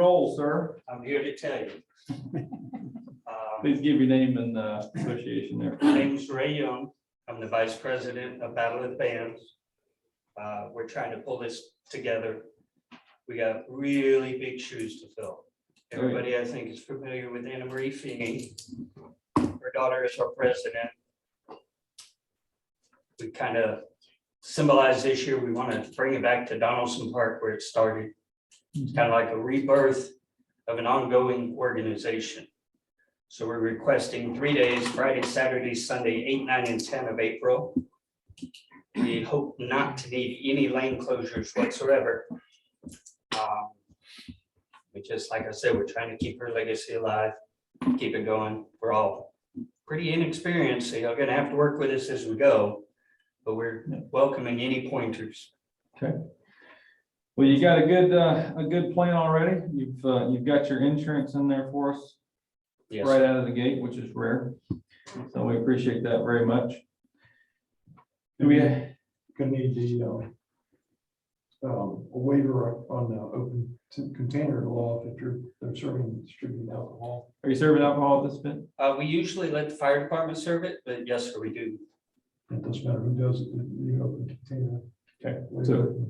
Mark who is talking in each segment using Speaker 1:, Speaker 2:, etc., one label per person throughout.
Speaker 1: Roll, sir.
Speaker 2: I'm here to tell you. Um,
Speaker 3: Please give your name and uh, association there.
Speaker 2: My name is Ray Young. I'm the vice president of Battle of the Bands. Uh, We're trying to pull this together. We got really big shoes to fill. Everybody, I think, is familiar with Anna Marie Feeney. Her daughter is our president. We kind of symbolize this year, we want to bring it back to Donaldson Park where it started. It's kind of like a rebirth of an ongoing organization. So we're requesting three days, Friday, Saturday, Sunday, eight, nine, and ten of April. We hope not to need any lane closures whatsoever. Um, We just, like I said, we're trying to keep her legacy alive, keep it going. We're all pretty inexperienced, so you're gonna have to work with us as we go. But we're welcoming any pointers.
Speaker 3: Well, you got a good, uh, a good plan already. You've, uh, you've got your insurance in there for us
Speaker 2: Yes.
Speaker 3: right out of the gate, which is rare. So we appreciate that very much. Do we,
Speaker 1: Gonna need the, um, um, a waiver on the open to- container law if you're, they're serving, and distributing alcohol.
Speaker 3: are you serving alcohol at this event?
Speaker 2: Uh, we usually let the fire department serve it, but yes, sir, we do.
Speaker 1: It doesn't matter who does it, you open container.
Speaker 3: Okay,
Speaker 1: Waiver.
Speaker 3: so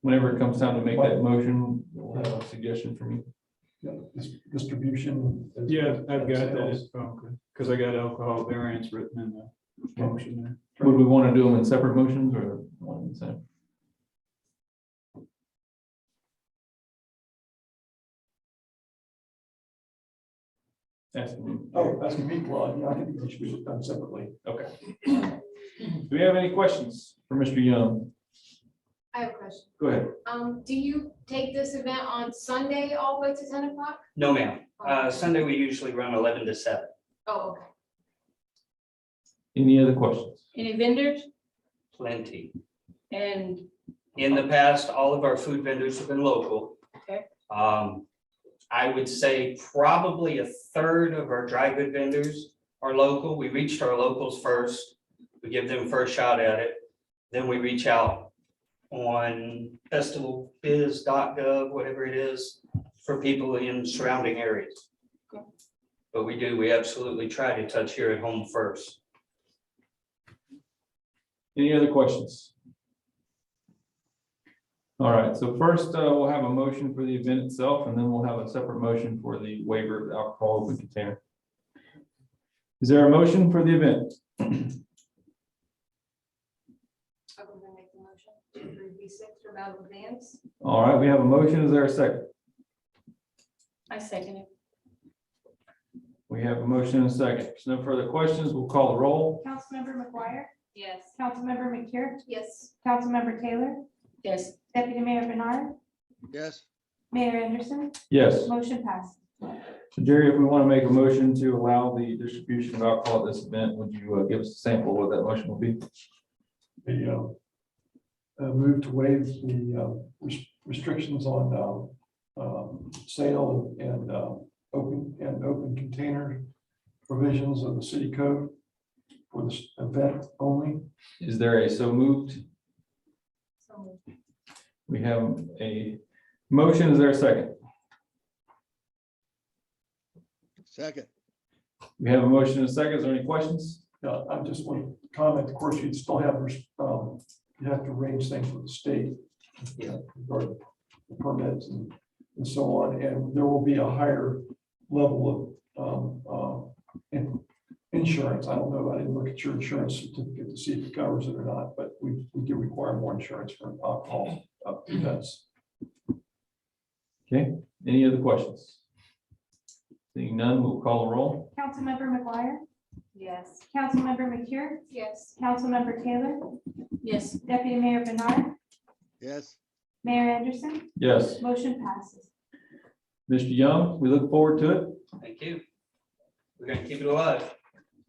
Speaker 3: whenever it comes time to make that motion, we'll have a suggestion from you.
Speaker 1: Yeah, dis- Distribution.
Speaker 4: Yeah, I've got
Speaker 1: Sales.
Speaker 4: that, because I got alcohol variants written in the motion there.
Speaker 3: Would we want to do them in separate motions or one at a time? Asking.
Speaker 1: Oh, that's gonna be, well, yeah, I think it should be done separately.
Speaker 3: Okay. Do we have any questions for Mr. Young?
Speaker 5: I have a question.
Speaker 3: Go ahead.
Speaker 5: Um, do you take this event on Sunday all the way to ten o'clock?
Speaker 2: No, ma'am. Uh, Sunday, we usually run eleven to seven.
Speaker 5: Oh, okay.
Speaker 3: Any other questions?
Speaker 6: Any vendors?
Speaker 2: Plenty.
Speaker 6: And
Speaker 2: In the past, all of our food vendors have been local.
Speaker 6: Okay.
Speaker 2: Um, I would say probably a third of our dry good vendors are local. We reached our locals first. We give them first shot at it. Then we reach out on festivalbiz.gov, whatever it is, for people in surrounding areas.
Speaker 6: Okay.
Speaker 2: But we do, we absolutely try to touch here at home first.
Speaker 3: Any other questions? All right, so first, uh, we'll have a motion for the event itself, and then we'll have a separate motion for the waiver of the alcohol open container. Is there a motion for the event?
Speaker 5: I'm gonna make the motion to approve V six for Battle of the Bands.
Speaker 3: All right, we have a motion. Is there a second?
Speaker 6: I second it.
Speaker 3: We have a motion and a second. If no further questions, we'll call the roll.
Speaker 7: Councilmember McGuire,
Speaker 5: Yes.
Speaker 7: Councilmember McCure,
Speaker 5: Yes.
Speaker 7: Councilmember Taylor,
Speaker 6: Yes,
Speaker 7: Deputy Mayor Bernard,
Speaker 8: yes,
Speaker 7: Mayor Anderson,
Speaker 3: Yes.
Speaker 7: motion passed.
Speaker 3: So Jerry, if we want to make a motion to allow the distribution of alcohol at this event, would you uh, give us a sample of what that motion will be?
Speaker 1: the uh, uh, move to waive the uh, res- restrictions on um, um, sale and uh, open, and open container provisions of the city code for this event only.
Speaker 3: Is there a so moved?
Speaker 5: So moved.
Speaker 3: We have a motion. Is there a second?
Speaker 8: second,
Speaker 3: We have a motion and a second. Is there any questions?
Speaker 1: Now, Uh, I just want to comment, of course, you'd still have, res- um, you have to arrange things with the state.
Speaker 2: Yeah.
Speaker 1: Regarding the permits and, and so on, and there will be a higher level of, um, uh, in- insurance. I don't know, I didn't look at your insurance certificate to see if it covers it or not, but we, we do require more insurance for alcohol uh, events.
Speaker 3: Okay, any other questions? Seeing none, we'll call a roll.
Speaker 7: Councilmember McGuire,
Speaker 5: Yes.
Speaker 7: Councilmember McCure,
Speaker 5: Yes.
Speaker 7: Councilmember Taylor,
Speaker 6: yes,
Speaker 7: Deputy Mayor Bernard,
Speaker 8: yes.
Speaker 7: Mayor Anderson,
Speaker 3: Yes,
Speaker 7: motion passes.
Speaker 3: Mr. Young, we look forward to it. If
Speaker 2: Thank you. We're gonna keep it alive.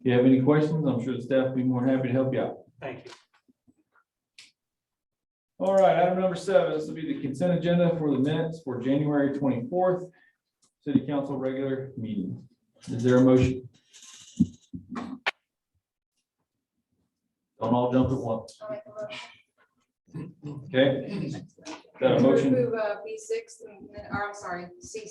Speaker 3: you have any questions, I'm sure the staff will be more than happy to help you out.
Speaker 2: Thank you.
Speaker 3: All right, item number seven, this will be the consent agenda for the minutes for January twenty-fourth, city council regular meeting. Is there a motion? Don't all jump at once,
Speaker 5: I'll make a motion.
Speaker 3: okay? Got a motion?
Speaker 5: Approve, uh, V six, and then, or I'm sorry, C